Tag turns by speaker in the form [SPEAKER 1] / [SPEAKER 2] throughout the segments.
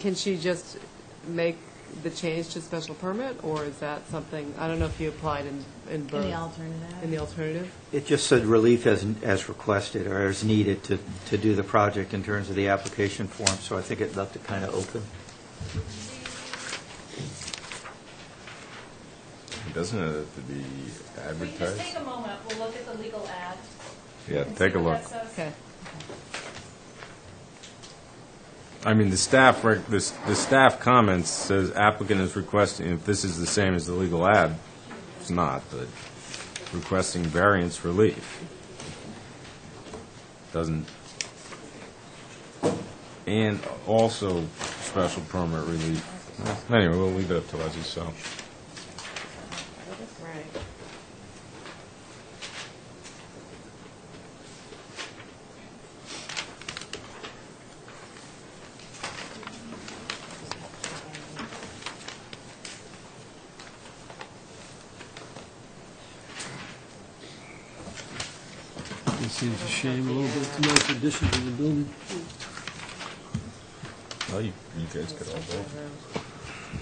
[SPEAKER 1] can she just make the change to special permit, or is that something, I don't know if you applied in, in both?
[SPEAKER 2] Any alternative?
[SPEAKER 1] In the alternative?
[SPEAKER 3] It just said relief as, as requested or as needed to, to do the project in terms of the application form, so I think it left it kind of open.
[SPEAKER 4] Doesn't it have to be
[SPEAKER 5] We can just take
[SPEAKER 4] advertised?
[SPEAKER 5] a moment, we'll look at the legal ad.
[SPEAKER 4] Yeah,
[SPEAKER 5] and
[SPEAKER 4] take
[SPEAKER 5] see
[SPEAKER 4] a
[SPEAKER 5] what
[SPEAKER 4] look.
[SPEAKER 5] that says.
[SPEAKER 1] Okay.
[SPEAKER 4] I mean, the staff, rec- the s- the staff comments says applicant is requesting, if this is the same as the legal ad, it's not, but requesting variance relief. Doesn't, and also special permit relief. Anyway, we'll leave it up to Leslie, so.
[SPEAKER 1] Right.
[SPEAKER 6] It seems a shame, a little bit too much addition to the building.
[SPEAKER 4] Well, you you guys could all vote.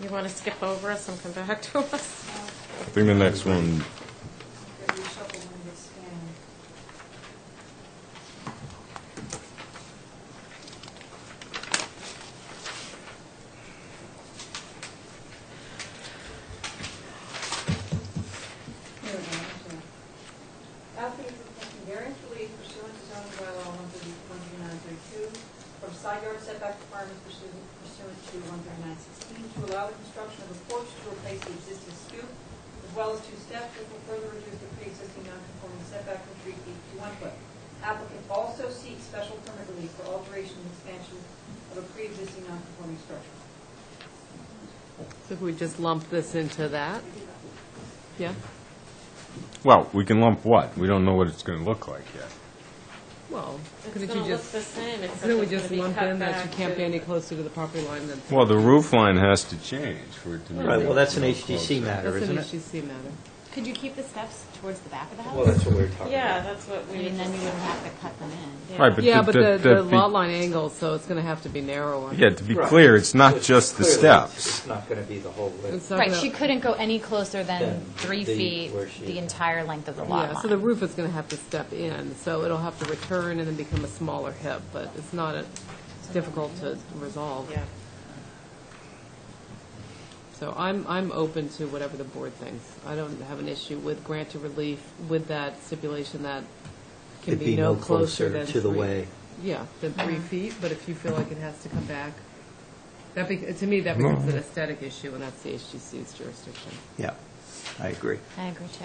[SPEAKER 7] You want to skip over us and come back to us?
[SPEAKER 4] I think the next one,
[SPEAKER 8] Applicant requesting variance relief pursuant to zoning bylaw one thirty, one thirty nine thirty two, from side yard setback requirements pursuant pursuant to one thirty nine sixteen, to allow the construction of a porch to replace the existing stoop, as well as two steps, which will further reduce the pre-existing non-conforming setback from three feet to one foot. Applicant also seeks special permit relief for alteration and expansion of a pre-existing non-conforming structure.
[SPEAKER 1] So if we just lump this into that? Yeah?
[SPEAKER 4] well, we can lump what? We don't know what it's going to look like yet.
[SPEAKER 1] Well,
[SPEAKER 7] It's
[SPEAKER 1] couldn't
[SPEAKER 7] going
[SPEAKER 1] you
[SPEAKER 7] to look
[SPEAKER 1] just,
[SPEAKER 7] the same, except
[SPEAKER 1] couldn't we
[SPEAKER 7] it's
[SPEAKER 1] just
[SPEAKER 7] gonna be
[SPEAKER 1] lump
[SPEAKER 7] cut
[SPEAKER 1] in that
[SPEAKER 7] back
[SPEAKER 1] you can't be
[SPEAKER 7] to-
[SPEAKER 1] any closer to the property line than?
[SPEAKER 4] Well, the roof line has to change for it to be.
[SPEAKER 3] Right, well, that's an
[SPEAKER 4] more
[SPEAKER 3] HDC
[SPEAKER 4] closer.
[SPEAKER 3] matter,
[SPEAKER 1] That's an
[SPEAKER 3] isn't it?
[SPEAKER 1] HGC matter.
[SPEAKER 2] Could you keep the steps towards the back of the house?
[SPEAKER 3] Well, that's what we were talking
[SPEAKER 7] Yeah,
[SPEAKER 3] about.
[SPEAKER 7] that's what
[SPEAKER 2] I
[SPEAKER 7] we.
[SPEAKER 2] mean, then you wouldn't have to cut them in.
[SPEAKER 4] Right, but
[SPEAKER 1] Yeah,
[SPEAKER 4] the-
[SPEAKER 1] but the, the
[SPEAKER 4] be-
[SPEAKER 1] lot line angle, so it's going to have to be narrower.
[SPEAKER 4] Yeah, to be
[SPEAKER 3] Right.
[SPEAKER 4] clear, it's not just the
[SPEAKER 3] Clearly, it's-
[SPEAKER 4] steps.
[SPEAKER 3] It's not going to be the whole
[SPEAKER 1] It's
[SPEAKER 3] width.
[SPEAKER 1] not
[SPEAKER 2] Right,
[SPEAKER 1] gonna-
[SPEAKER 2] she couldn't go any closer than
[SPEAKER 3] Than
[SPEAKER 2] three
[SPEAKER 3] the-
[SPEAKER 2] feet,
[SPEAKER 3] where she-
[SPEAKER 2] the entire length of the lot
[SPEAKER 1] Yeah, so the
[SPEAKER 2] line.
[SPEAKER 1] roof is going to have to step in, so it'll have to return and then become a smaller hip, but it's not, a- it's difficult to resolve.
[SPEAKER 7] Yeah.
[SPEAKER 1] So I'm, I'm open to whatever the board thinks. I don't have an issue with grant to relief with that stipulation that can
[SPEAKER 3] It'd
[SPEAKER 1] be no closer than
[SPEAKER 3] to the
[SPEAKER 1] three-
[SPEAKER 3] way.
[SPEAKER 1] Yeah, than three feet, but if you feel like it has to come back, that, bec- to me, that becomes an aesthetic issue, and that's the HGC's jurisdiction.
[SPEAKER 3] Yeah, I agree.
[SPEAKER 2] I agree too.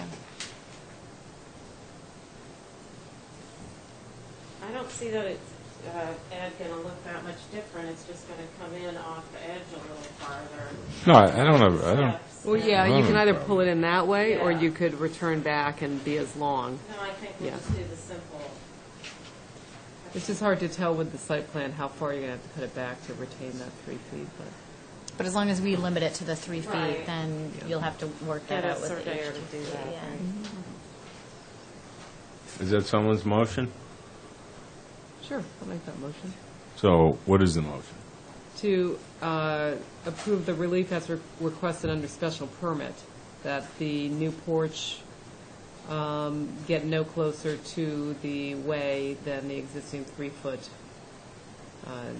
[SPEAKER 7] I don't see that it's, uh, Ed going to look that much different, it's just going to come in off the edge a little farther.
[SPEAKER 4] No, I I don't know, I don't,
[SPEAKER 7] Steps.
[SPEAKER 1] Well, yeah, you can either pull it in that way, or
[SPEAKER 7] Yeah.
[SPEAKER 1] you could return back and be as long.
[SPEAKER 7] No, I think we'll
[SPEAKER 1] Yeah.
[SPEAKER 7] just do the simple.
[SPEAKER 1] It's just hard to tell with the site plan how far you're going to have to cut it back to retain that three feet, but.
[SPEAKER 2] But as long as we limit it to the three feet,
[SPEAKER 7] Right.
[SPEAKER 2] then
[SPEAKER 1] Yeah.
[SPEAKER 2] you'll have to work that
[SPEAKER 7] Get a
[SPEAKER 2] out with the
[SPEAKER 7] surveyor to do
[SPEAKER 2] HGC,
[SPEAKER 7] that,
[SPEAKER 2] yeah.
[SPEAKER 7] right.
[SPEAKER 4] is that someone's motion?
[SPEAKER 1] Sure, I'll make that motion.
[SPEAKER 4] So what is the motion?
[SPEAKER 1] To uh, approve the relief as re- requested under special permit, that the new porch um, get no closer to the way than the existing three-foot, uh, is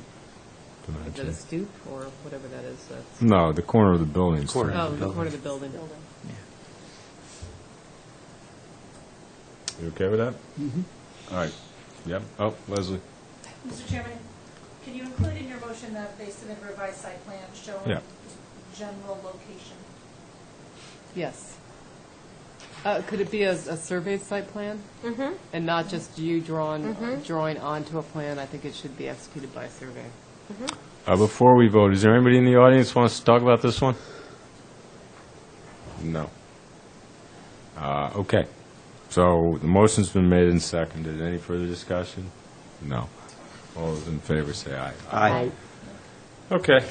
[SPEAKER 1] that a
[SPEAKER 4] Dimension?
[SPEAKER 1] stoop, or whatever that is, that's,
[SPEAKER 4] No, the corner of the building.
[SPEAKER 3] Corner.
[SPEAKER 1] oh,
[SPEAKER 3] the
[SPEAKER 1] the corner of the building.
[SPEAKER 4] You okay with that? Mm-hmm. All right, yep, oh, Leslie,
[SPEAKER 5] Mr. Chairman, can you include in your motion that they submit revised site plan showing
[SPEAKER 4] Yeah.
[SPEAKER 5] general location?
[SPEAKER 1] Yes. Uh, Could it be a a surveyed site plan?
[SPEAKER 7] Mm-hmm.
[SPEAKER 1] And not just you drawing, drawing onto a plan, I think it should be executed by a survey.
[SPEAKER 4] Uh, before we vote, is there anybody in the audience wants to talk about this one? No. Uh, Okay, so the motion's been made and seconded, any further discussion? No. All those in favor say aye.
[SPEAKER 3] Aye.
[SPEAKER 4] Okay,